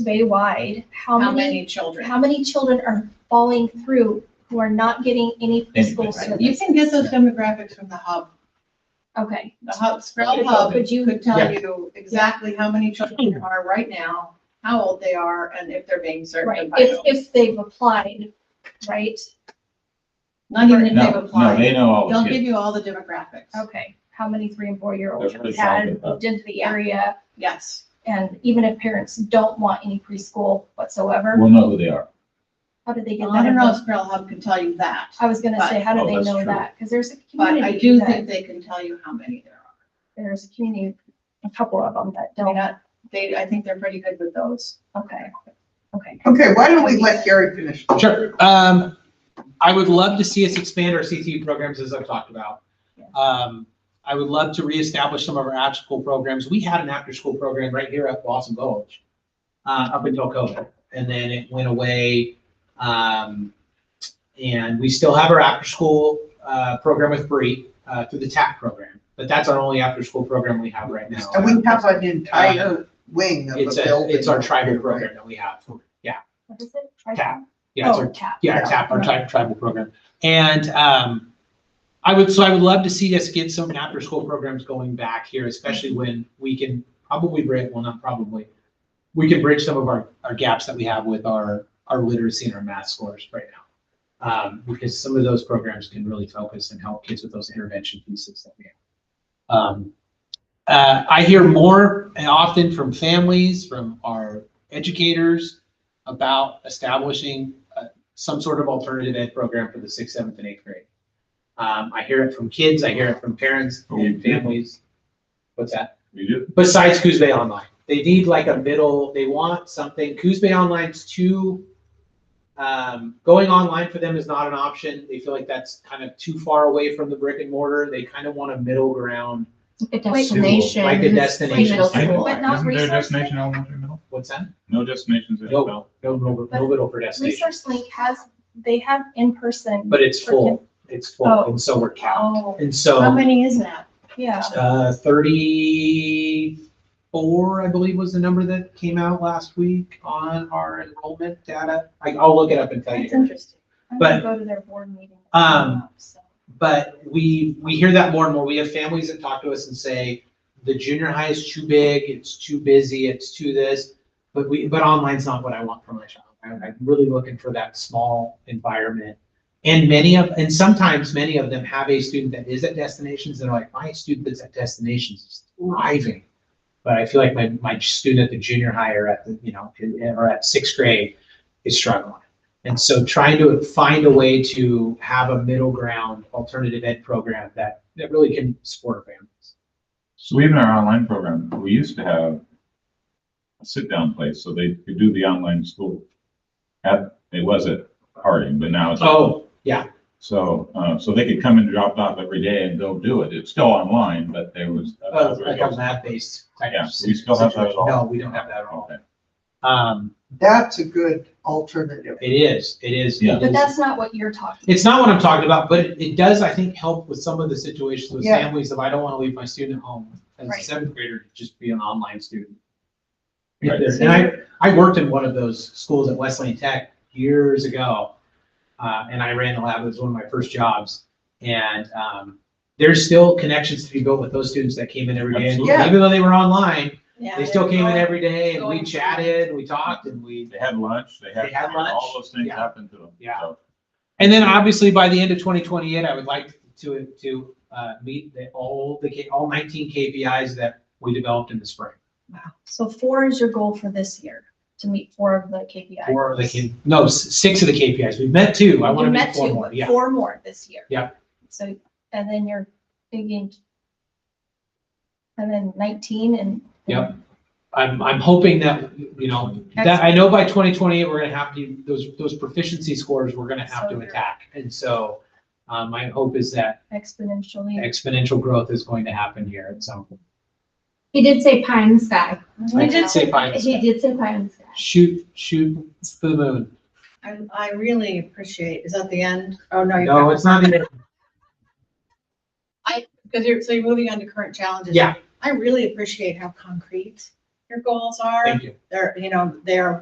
way wide, how How many, many children? how many children are falling through who are not getting any preschool Anything. Right. service? You can get those demographics from the hub. Okay, The hub, Sprout Could- Hub could you- could tell Yeah. you exactly how many children are right now, how old they are, and if they're being served. right, by if, whom. if they've applied, right? Not even if they've No, no, applied. they know all the They'll kids. give you all the demographics. Okay, how many three and four year olds That's really had, shocking. did the area, Yes. and even if parents don't want any preschool whatsoever, We'll know who they are. how did they get I that? don't know if info? Sprout Hub can tell you that, I was gonna say, how Oh, do they that's know true. that? Because there's a but I community do that, think they can tell you how many there are. there's a community, a couple of them that I mean, don't, I- they, I think they're pretty good with those. okay, okay. Okay, why don't we let Gary finish? Sure. Um, I would love to see us expand our CTE programs as I've talked about. Um, I would love to reestablish some of our after-school programs. We had an after-school program right here at Blossom Gulch, uh, up until COVID, and then it went away. Um, and we still have our after-school, uh, program with Bree, uh, through the TAP program, but that's our only after-school program we have right now. And we have an entire wing of a Uh-huh. It's a, building. it's our tribal program that we have. Yeah, What is it? Tri- TAP. Yeah, it's Oh, our tap. yeah, TAP, our tri- tribal program. And um, I would, so I would love to see us get some after-school programs going back here, especially when we can probably bridge, well, not probably, we can bridge some of our, our gaps that we have with our, our literacy and our math scores right now. Um, Because some of those programs can really focus and help kids with those intervention pieces that we have. Um, uh, I hear more and often from families, from our educators about establishing a some sort of alternative ed program for the sixth, seventh, and eighth grade. Um, I hear it from kids, I hear it from parents and families. What's that? We do. Besides Coos Bay Online, they need like a middle, they want something, Coos Bay Online's too, um, going online for them is not an option. They feel like that's kind of too far away from the brick and mortar. They kind of want a middle ground, A destination. like a destination. middle type school, of- but not Isn't there a resource destination elementary middle? What's that? No destinations. No, no, no, no middle for destination, Resource Link has, they have in-person, but it's full, it's full, and so we're capped. Oh, And so. how many is that? yeah. Uh, thirty-four, I believe, was the number that came out last week on our enrollment data. I, I'll look it up and tell That's you. interesting. I'm gonna But- go to their board meeting. Um, So, But we, we hear that more and more. We have families that talk to us and say, the junior high is too big, it's too busy, it's too this. But we, but online's not what I want for my child. I'm, I'm really looking for that small environment. And many of, and sometimes many of them have a student that is at destinations and are like, my student that's at destinations is thriving. But I feel like my, my student at the junior high or at the, you know, or at sixth grade is struggling. And so trying to find a way to have a middle ground alternative ed program that, that really can support families. So even our online program, we used to have a sit-down place, so they could do the online school. At, it was at Harding, but now it's. Oh, So, uh, so they could come and drop off every day and go do it. It's still online, but there was. uh, like a lab-based type Yeah, of. we still have that at all? No, we don't have that at all. Okay. Um, That's a good alternative. it is, it is. it Yeah. is. But that's not what you're talking. It's not what I'm talking about, but it it does, I think, help with some of the situations with Yeah. families if I don't want to leave my student at home as a Right. seventh grader, to just be an online student. Right. And I, I worked in one of those schools at Wesleyan Tech years ago. Uh, and I ran the lab, it was one of my first jobs. And, um, there's still connections to be built with those students that came in every day. And Absolutely. Even though they were online, Yeah, they still came in every day and we going- chatted, and we talked and we They had lunch, they had. They had lunch, All those things yeah. happened to them. Yeah. So, And then obviously by the end of 2028, I would like to, to uh, meet the, all the, K- all 19 KPIs that we developed in the spring. Wow. So four is your goal for this year, to meet four of the KPIs. Four of the, K- no, s- six of the KPIs. We've met two. I want to You meet met four two, more. but Yeah. Four more this year. Yeah. So, and then you're thinking. And then nineteen and. Yep. I'm, I'm hoping that, you know, that, I know by 2028, we're going to have to, those, those proficiency scores, we're going to have So to you're- attack. And so uh, my hope is that Exponentially. exponential growth is going to happen here at some point. He did say pie in the sky. We I did say pie in the He sky. did say pie in the sky. Shoot, shoot for the moon. I, I really appreciate, is that the end? Oh, no. you've got- No, it's not the Because you're, so you're moving on to current challenges. Yeah. I really appreciate how concrete your goals are. Thank you. They're, you know, they're